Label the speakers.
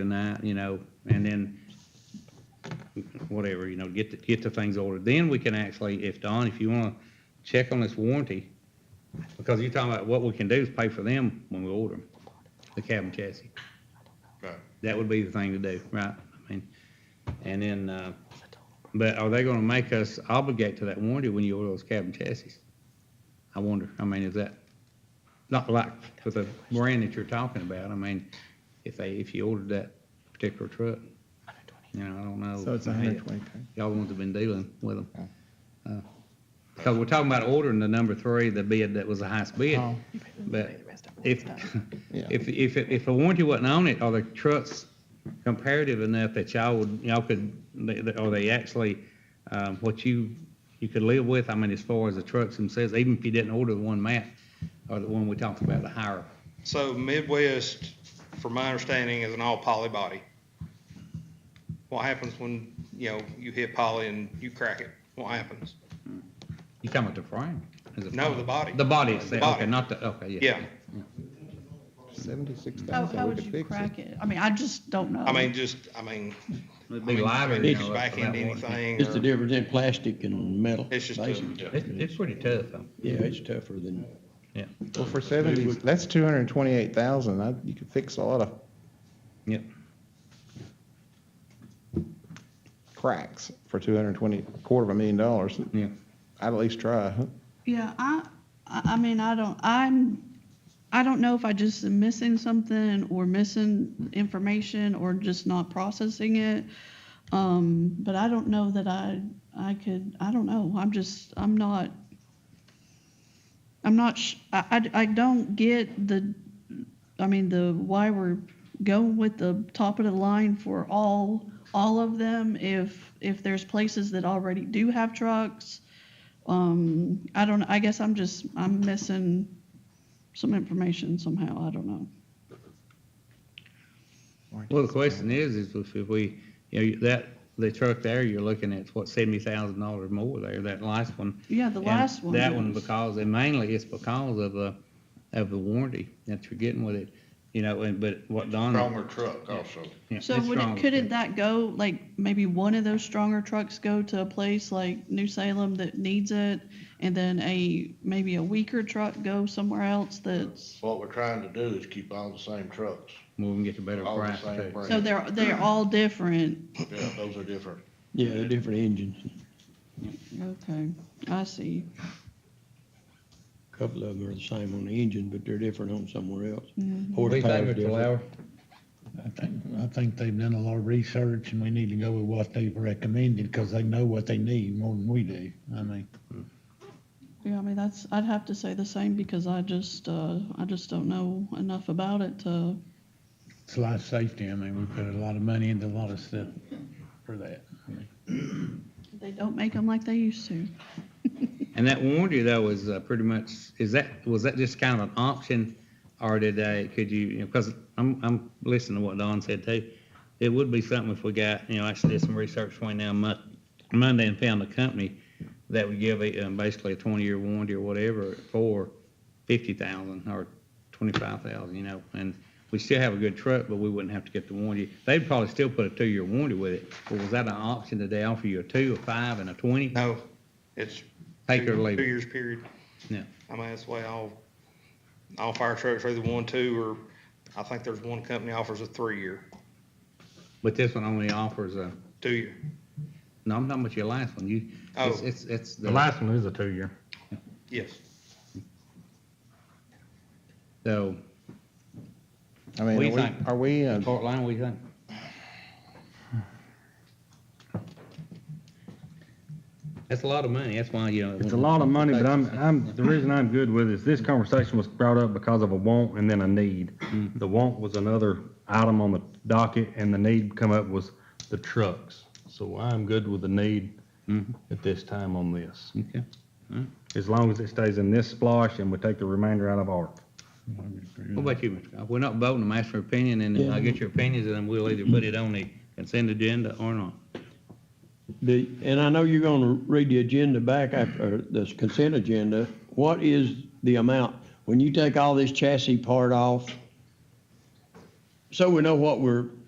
Speaker 1: tonight, you know, and then whatever, you know, get, the- get the things ordered. Then we can actually, if Don, if you want to check on this warranty, because you're talking about what we can do is pay for them when we order them, the cab and chassis.
Speaker 2: Right.
Speaker 1: That would be the thing to do, right? I mean, and then, uh, but are they going to make us obligate to that warranty when you order those cab and chassis? I wonder, I mean, is that, not like for the brand that you're talking about, I mean, if they, if you ordered that particular truck, you know, I don't know.
Speaker 3: So it's a hundred and twenty.
Speaker 1: Y'all ones have been dealing with them. Uh, Because we're talking about ordering the number three, the bid that was the highest bid.
Speaker 3: Oh.
Speaker 1: But if,
Speaker 3: Yeah.
Speaker 1: if, if, if a warranty wasn't on it, are the trucks comparative enough that y'all would, y'all could, they- they- are they actually, um, what you, you could live with? I mean, as far as the trucks themselves, even if you didn't order the one map, or the one we talked about, the higher.
Speaker 2: So Midwest, from my understanding, is an all poly body. What happens when, you know, you hit poly and you crack it? What happens?
Speaker 1: You talking about the frame? Is it
Speaker 2: No,
Speaker 1: frame?
Speaker 2: the body.
Speaker 1: The body
Speaker 2: The
Speaker 1: itself,
Speaker 2: body.
Speaker 1: okay, not the, okay, yeah.
Speaker 2: Yeah,
Speaker 3: Seventy-six
Speaker 4: How,
Speaker 3: thousand,
Speaker 4: how
Speaker 3: we
Speaker 4: would
Speaker 3: could
Speaker 4: you
Speaker 3: fix it.
Speaker 4: crack it? I mean, I just don't know.
Speaker 2: I mean, just, I mean,
Speaker 1: It'd be lighter, you
Speaker 2: you
Speaker 1: know.
Speaker 2: can
Speaker 1: that's
Speaker 2: back into
Speaker 1: about what-
Speaker 2: anything
Speaker 5: It's the
Speaker 2: or,
Speaker 5: difference in plastic and metal.
Speaker 2: it's just, a-
Speaker 5: basically.
Speaker 1: It's, it's pretty tough, though.
Speaker 5: Yeah, it's tougher than,
Speaker 1: Yeah.
Speaker 3: Well, for seventy, that's two hundred and twenty-eight thousand, I, you could fix a lot of
Speaker 1: Yep.
Speaker 3: cracks for two hundred and twenty, quarter of a million dollars.
Speaker 1: Yeah.
Speaker 3: I'd at least try.
Speaker 4: Yeah, I, I I mean, I don't, I'm, I don't know if I just am missing something or missing information or just not processing it. Um, but I don't know that I, I could, I don't know. I'm just, I'm not, I'm not, sh- I, I, I don't get the, I mean, the, why we're going with the top of the line for all, all of them if, if there's places that already do have trucks. Um, I don't, I guess I'm just, I'm missing some information somehow, I don't know.
Speaker 1: Well, the question is, is if if we, you know, that, the truck there, you're looking at, what, seventy thousand dollars more there, that last one.
Speaker 4: Yeah, the
Speaker 1: And
Speaker 4: last one.
Speaker 1: That one
Speaker 4: is-
Speaker 1: because, and mainly it's because of, uh, of the warranty that you're getting with it, you know, and, but what Don.
Speaker 6: Stronger truck also.
Speaker 1: Hmm. yeah,
Speaker 4: So
Speaker 1: it's
Speaker 4: would
Speaker 1: strong.
Speaker 4: it, couldn't that go, like, maybe one of those stronger trucks go to a place like New Salem that needs it? And then a, maybe a weaker truck go somewhere else that's,
Speaker 6: What we're trying to do is keep all the same trucks,
Speaker 1: We can get a better
Speaker 6: all the
Speaker 1: price
Speaker 6: same
Speaker 1: too.
Speaker 4: so
Speaker 6: brand.
Speaker 4: they're, they're all different.
Speaker 6: Yeah, those are different.
Speaker 5: yeah, they're different engines.
Speaker 4: Okay, I see.
Speaker 5: A Couple of them are the same on the engine, but they're different on somewhere else.
Speaker 1: What do you
Speaker 5: Horsepower's
Speaker 1: think, Mr.
Speaker 5: different.
Speaker 1: Lauer?
Speaker 7: I think, I think they've done a lot of research and we need to go with what they've recommended because they know what they need more than we do. I mean,
Speaker 4: Yeah, I mean, that's, I'd have to say the same because I just, uh, I just don't know enough about it to
Speaker 7: it's life safety. I mean, we put a lot of money into a lot of stuff for that.
Speaker 4: They don't make them like they used to.
Speaker 1: And that warranty though is uh, pretty much, is that, was that just kind of an option? Or did they, could you, you know, because I'm, I'm listening to what Don said too. It would be something if we got, you know, actually did some research between now and Mon- Monday and found a company that would give a, um, basically a twenty-year warranty or whatever for fifty thousand or twenty-five thousand, you know? And we still have a good truck, but we wouldn't have to get the warranty. They'd probably still put a two-year warranty with it. But was that an option? Did they offer you a two, a five, and a twenty?
Speaker 2: no, it's.
Speaker 1: Take or
Speaker 2: two-
Speaker 1: leave
Speaker 2: Two
Speaker 1: it?
Speaker 2: years period.
Speaker 1: Yeah.
Speaker 2: I mean, that's the way all, all fire trucks are either one, two, or I think there's one company offers a three-year,
Speaker 1: But this one only offers a,
Speaker 2: two-year.
Speaker 1: no, I'm talking about your last one, you, it's,
Speaker 2: Oh.
Speaker 1: it's, it's.
Speaker 8: The last one is a two-year.
Speaker 2: Yes.
Speaker 1: So,
Speaker 3: I
Speaker 1: What do
Speaker 3: mean,
Speaker 1: you
Speaker 3: are we,
Speaker 1: think?
Speaker 3: are we, uh,
Speaker 1: Fort Line, what do you think? That's a lot of money, that's why, you know.
Speaker 8: It's a lot of money, but I'm, I'm, the reason I'm good with it is this conversation was brought up because of a want and then a need.
Speaker 7: Mm-hmm.
Speaker 8: The want was another item on the docket and the need come up was the trucks. So I'm good with the need at this time on this.
Speaker 1: Okay.
Speaker 8: As long as it stays in this splosh and we take the remainder out of ARP.
Speaker 1: What about you, Mr. Goff? We're not voting, I'm asking your opinion, and then I'll get your opinions, and then we'll either put it on the consent agenda or not.
Speaker 5: The, and I know you're gonna read the agenda back after, or this consent agenda. What is the amount? When you take all this chassis part off, so we know what we're